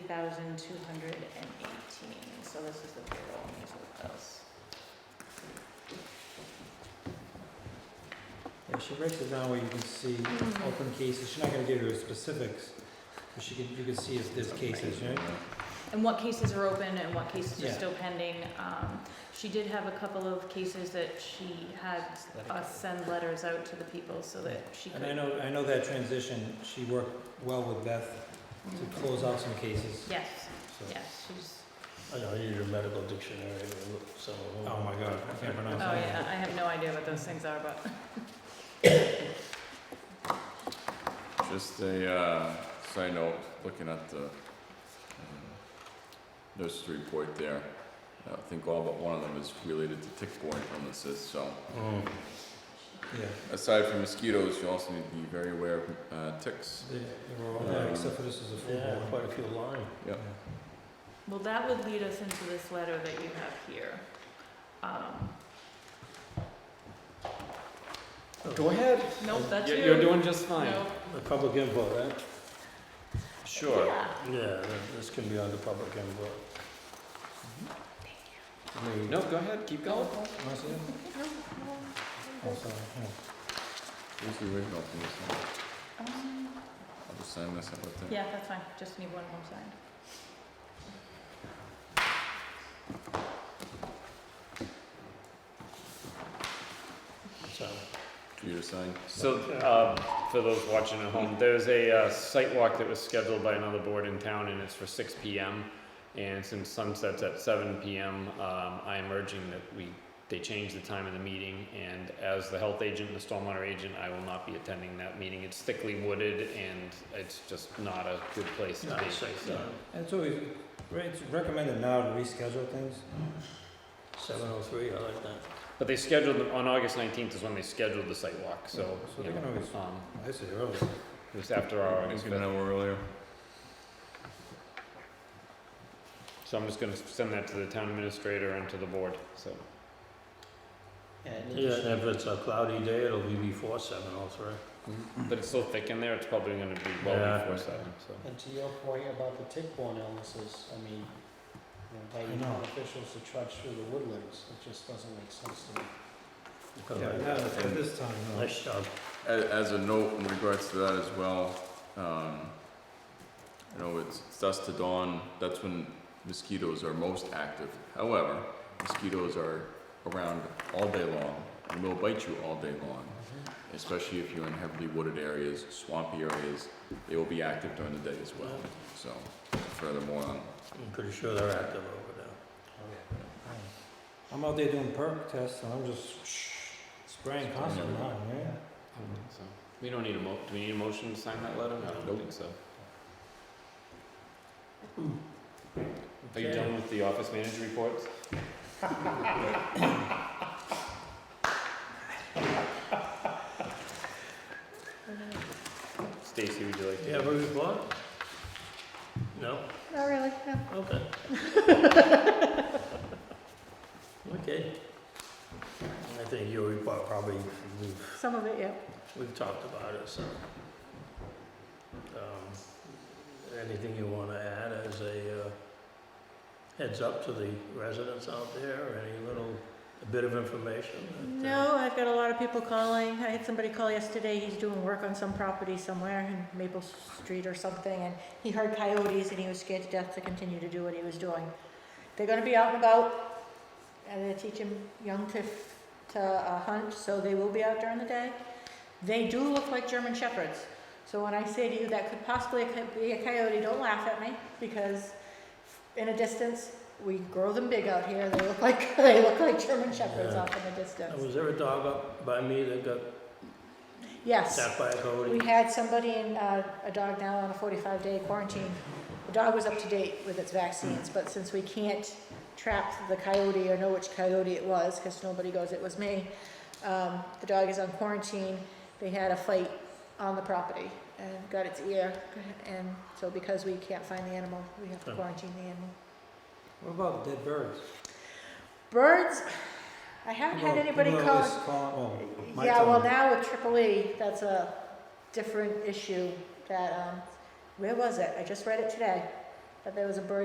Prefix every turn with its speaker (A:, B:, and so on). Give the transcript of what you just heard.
A: thousand two hundred and eighteen, so this is the payroll and these are the bills.
B: Yeah, she breaks it down where you can see open cases, she's not gonna give you the specifics, but she can, you can see if there's cases, right?
A: And what cases are open and what cases are
B: Yeah.
A: still pending. Um, she did have a couple of cases that she had us send letters out to the people so that she could.
B: And I know, I know that transition, she worked well with Beth to
A: Mm-hmm.
B: close out some cases,
A: Mm. Yes,
B: so.
A: yes, she's,
C: I know, you need a medical dictionary to look some of them.
B: Oh my god, I can't
A: oh
B: pronounce that.
A: yeah, I have no idea what those things are, but
D: Just a uh, side note, looking at the uh, um, nurse's report there, I think all but one of them is related to tick-borne illnesses, so
C: Mm.
B: Yeah,
D: aside from mosquitoes, you also need to be very aware of uh, ticks.
B: they, they were all there, except for this is a
C: Yeah,
B: food
C: quite
B: one.
C: a few lines.
D: Yep.
A: Well, that would lead us into this letter that you have here. Um,
B: Oh.
C: Go ahead.
A: Nope, that's you.
E: You're doing just fine.
A: Nope.
C: Public input, right?
A: Yeah.
C: Yeah, th- this can be under public input.
B: I mean,
E: No, go ahead, keep going.
B: wanna see it? Oh, sorry, yeah.
D: Where's the original from this one?
A: Um,
D: I'll just sign this out right there.
A: Yeah, that's fine, just need one more signed.
C: So,
D: For you to sign.
E: So, uh, for those watching at home, there's a uh, site walk that was scheduled by another board in town, and it's for 6 p.m. And since sunset's at 7 p.m., um, I am urging that we they change the time of the meeting. And as the health agent and the stormwater agent, I will not be attending that meeting. It's thickly wooded, and it's just not a good place to
C: not
E: be.
C: six,
E: so.
C: nine.
B: And it's always, right, it's recommended now to reschedule things,
C: Seven oh three, I like that.
E: But they scheduled on August 19th is when they scheduled the site walk. So,
B: so
E: you
B: they can
E: know,
B: always,
E: um,
B: I say early.
E: it was after our
D: It's
E: August
D: an hour earlier.
E: So I'm just gonna send that to the town administrator and to the board, so.
C: Yeah, and if it's a cloudy day, it'll be before seven oh three.
E: But it's so thick in there, it's probably gonna be
C: Yeah.
E: well before seven, so.
F: And to your point about the tick-borne illnesses, I mean, you know,
B: I
F: inviting
B: know.
F: town officials to trudge through the woodlands, it just doesn't make sense to me.
C: Because I-
B: Yeah, at this time, no.
C: Nice job.
D: A- As a note in regards to that as well, um, you know, it's it's dusk to dawn, that's when mosquitoes are most active. However, mosquitoes are around all day long and will bite you all day long,
B: Mm-hmm.
D: especially if you're in heavily wooded areas, swampy areas. They will be active during the day as well. So furthermore, um, on
C: I'm pretty sure they're active over there.
B: I'm out there doing perk tests and I'm just spraying constantly,
D: everywhere.
B: man. Mm-hmm.
E: So, We don't need a mo, do we need a motion to sign that letter? No, I don't
D: Nope.
E: think so. Are you done with the office manager reports? Stacy, would you like to?
C: Do you have a report? No?
A: Not really, no.
C: Okay. Okay. I think your report probably, we've,
A: Some of it, yeah.
C: we've talked about it, so. Um, Anything you wanna add as a uh, heads up to the residents out there, or any little bit of information? that, uh,
A: No, I've got a lot of people calling. I had somebody call yesterday, he's doing work on some property somewhere in Maple Street or something, and he heard coyotes and he was scared to death to continue to do what he was doing. They're gonna be out and about, and they're teaching young to, to uh, hunt, so they will be out during the day. They do look like German shepherds, so when I say to you that could possibly be a coyote, don't laugh at me, because in a distance, we grow them big out here, they look like, they look like German shepherds
C: Yeah.
A: off in the distance.
C: Now, Was there a dog up by me that got
A: Yes,
C: attacked by a
A: we
C: coyote?
A: had somebody in, uh, a dog now on a forty-five day quarantine. The dog was up to date with its vaccines, but since we can't trap the coyote or know which coyote it was, cause nobody goes, it was me, um, the dog is on quarantine. They had a fight on the property and got its ear, and so because we can't find the animal, we have to
C: Hmm.
A: quarantine the animal.
B: What about dead birds?
A: Birds, I haven't had
B: People-
A: anybody
B: people
A: call.
B: always call- oh, my
A: Yeah, well,
B: turn.
A: now with triple E, that's a different issue that, um, where was it? I just read it today. that there was a bird